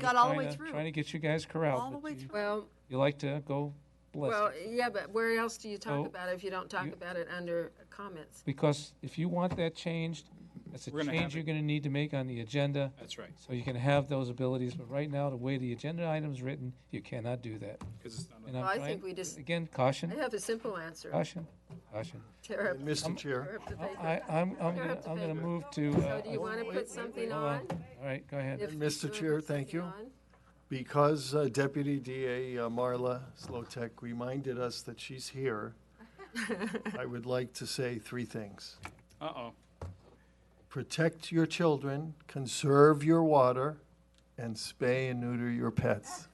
got all the trying way to- through. Trying to get you guys corralled. All the but way you- through. Well, You like to go well, ballistic. yeah, but where else do you Oh, talk about it if you don't talk you- about it under comments? Because if you want that changed, that's a We're gonna have change it. you're going to need to make on the agenda. That's right, So you can have those abilities, but right now, the way the agenda item's written, you cannot do that. because it's not, And a- I'm Well, I trying- think we just- Again, I caution, have a simple answer. caution, caution. Tear up- Mr. Chair, tear up the paper. I, I'm, I'm, You're gonna- up to I'm gonna paper. move to. So uh, do you want to put something hold on? All right, go ahead. If Mr. you wanna put Chair, thank something you. on? because uh, Deputy DA uh, Marla Slotek reminded us that she's here, I would like to say three things. uh-oh, Protect your children, conserve your water, and spay and neuter your pets.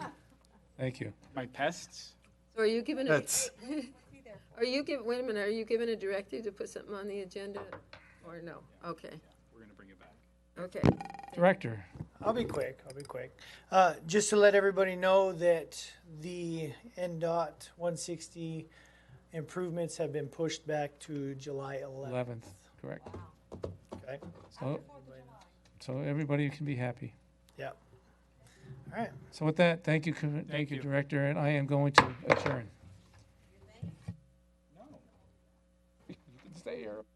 Thank you. my pests? So are you giving, a- Pets. are you giving, wait a minute, are you giving a directive to put something on the agenda or no? Okay, We're gonna bring it back. okay. Director, I'll be quick. I'll be quick. Uh, just to let everybody know that the NDOT 160 improvements have been pushed back to July 11th. 11th, correct. Okay. So, so everybody can be happy. Yeah. All right. So with that, thank you, Commi- thank you, you. Director, and I am going to adjourn. No. You can stay here.